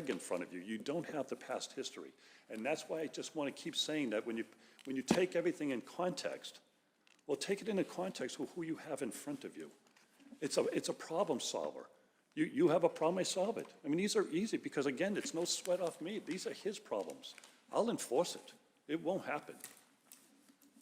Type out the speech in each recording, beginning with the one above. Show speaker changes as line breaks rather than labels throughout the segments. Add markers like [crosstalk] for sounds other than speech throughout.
peg in front of you. You don't have the past history. And that's why I just want to keep saying that when you, when you take everything in context, well, take it into context with who you have in front of you. It's a, it's a problem solver. You, you have a problem, I solve it. I mean, these are easy because again, it's no sweat off me. These are his problems. I'll enforce it. It won't happen.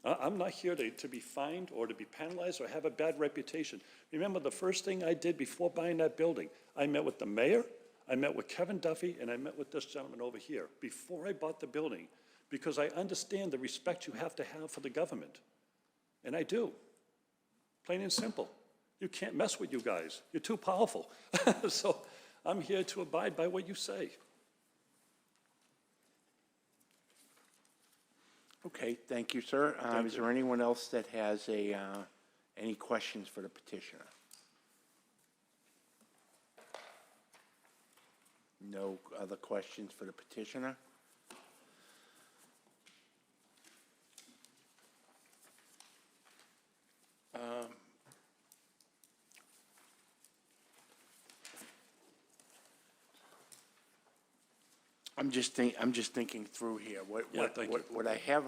I- I'm not here to, to be fined or to be penalized or have a bad reputation. Remember, the first thing I did before buying that building, I met with the mayor, I met with Kevin Duffy, and I met with this gentleman over here before I bought the building, because I understand the respect you have to have for the government. And I do. Plain and simple. You can't mess with you guys. You're too powerful. [laughs] So I'm here to abide by what you say.
Okay, thank you, sir. Um, Is there anyone else that has a, uh, any questions for the petitioner? No other questions for the petitioner? Um, I'm just think, I'm just thinking through here. What,
Yeah,
what,
thank you.
what- what I have,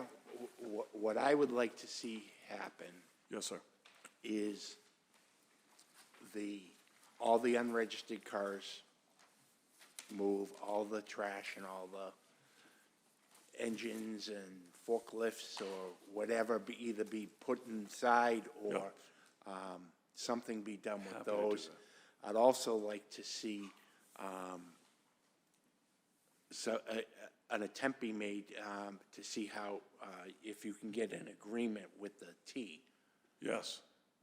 what, what I would like to see happen
Yes, sir.
is the, all the unregistered cars move, all the trash and all the engines and forklifts or whatever, be, either be put inside or, um, something be done with
to do
those. I'd also like to see, um, so, uh, an attempt be made, um, to see how, uh, if you can get an agreement with the T
Yes.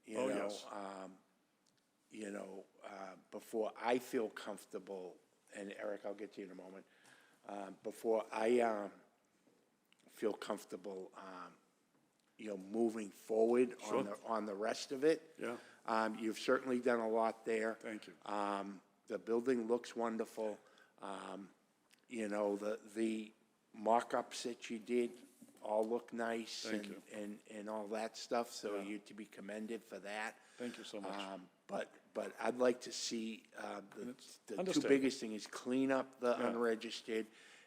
you
Oh,
know,
yes.
um, you know, uh, before I feel comfortable, and Eric, I'll get to you in a moment, uh, before I um, feel comfortable, um, you know, moving forward
Sure.
on the on the rest of it.
Yeah.
Um, you've certainly done a lot there.
Thank you.
Um, the building looks wonderful. Um, you know, the, the mock-ups that you did all look nice
Thank
and,
you.
and, and all that stuff, so you're to be commended for that.
Thank you so much.
Um, But, but I'd like to see, uh, the, the two
understandable.
biggest thing is clean up the unregistered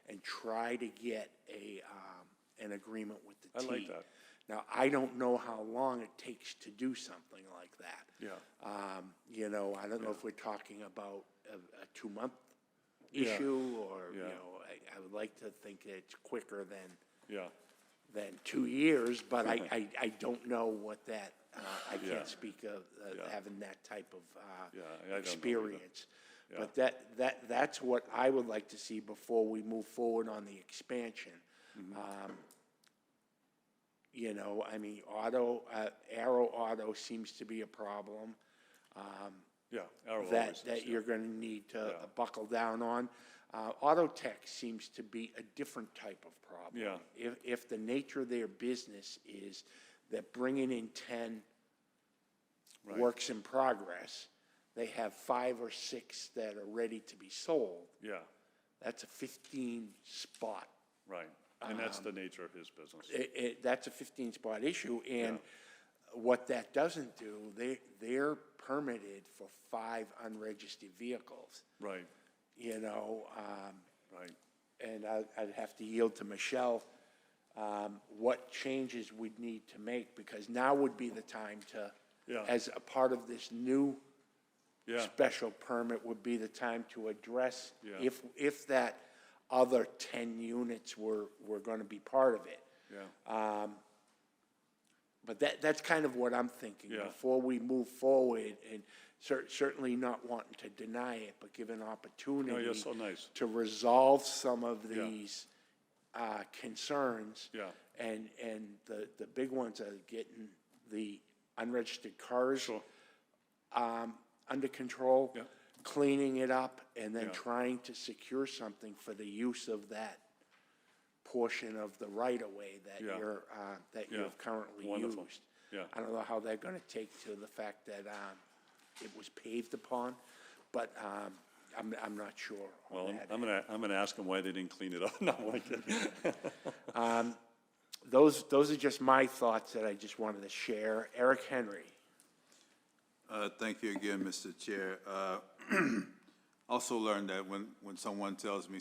and try to get a, um, an agreement with the
I like
T.
that.
Now, I don't know how long it takes to do something like that.
Yeah.
Um, you know, I don't know if we're talking about a, a two-month issue or, you
Yeah.
know, I, I would like to think that it's quicker than,
Yeah.
than two years, but I, I, I don't know what that, uh, I
Yeah.
can't speak of,
Yeah.
uh, having that type of,
Yeah, I- I don't
uh,
know either.
experience.
Yeah.
But that, that, that's what I would like to see before we move forward on the expansion.
Mm-hmm.
Um, You know, I mean, auto, uh, Arrow Auto seems to be a problem. Um,
Yeah. Arrow always
that,
is,
that
yeah.
you're gonna need to
Yeah.
buckle down on. Uh, auto tech seems to be a different type of problem.
Yeah.
If, if the nature of their business is that bringing in ten
Right.
works in progress, they have five or six that are ready to be sold,
Yeah,
that's a fifteen spot.
right. And that's the nature of his business.
It, it, that's a fifteen spot issue, and what that doesn't do, they, they're permitted for five unregistered vehicles.
Right,
you know, um,
right.
and I, I'd have to yield to Michelle, um, what changes we'd need to make, because now would be the time to,
Yeah.
as a part of this new
Yeah,
special permit, would be the time to address
Yeah.
if, if that other ten units were, were gonna be part of it.
yeah,
But that, that's kind of what I'm thinking.
Yeah.
Before we move forward, and cer- certainly not wanting to deny it, but give an opportunity.
Oh, so nice.
To resolve some of these uh, concerns.
Yeah.
And, and the, the big ones are getting the unregistered cars.
Sure.
um, Under control.
Yeah.
Cleaning it up, and then
Yeah.
trying to secure something for the use of that portion of the right-of-way that
Yeah.
you're, uh, that you
Yeah.
have currently
Wonderful.
used.
Yeah.
I don't know how they're gonna take to the fact that, um, it was paved upon, but, um, I'm, I'm not sure
well, um,
on
I'm-
that.
I'm gonna, I'm gonna ask him why they didn't clean it up. [laughs] No, I'm kidding.
Those, those are just my thoughts that I just wanted to share. Eric Henry.
[clears throat] Uh, Thank you again, Mr. Chair. Uh, also learned that when, when someone tells me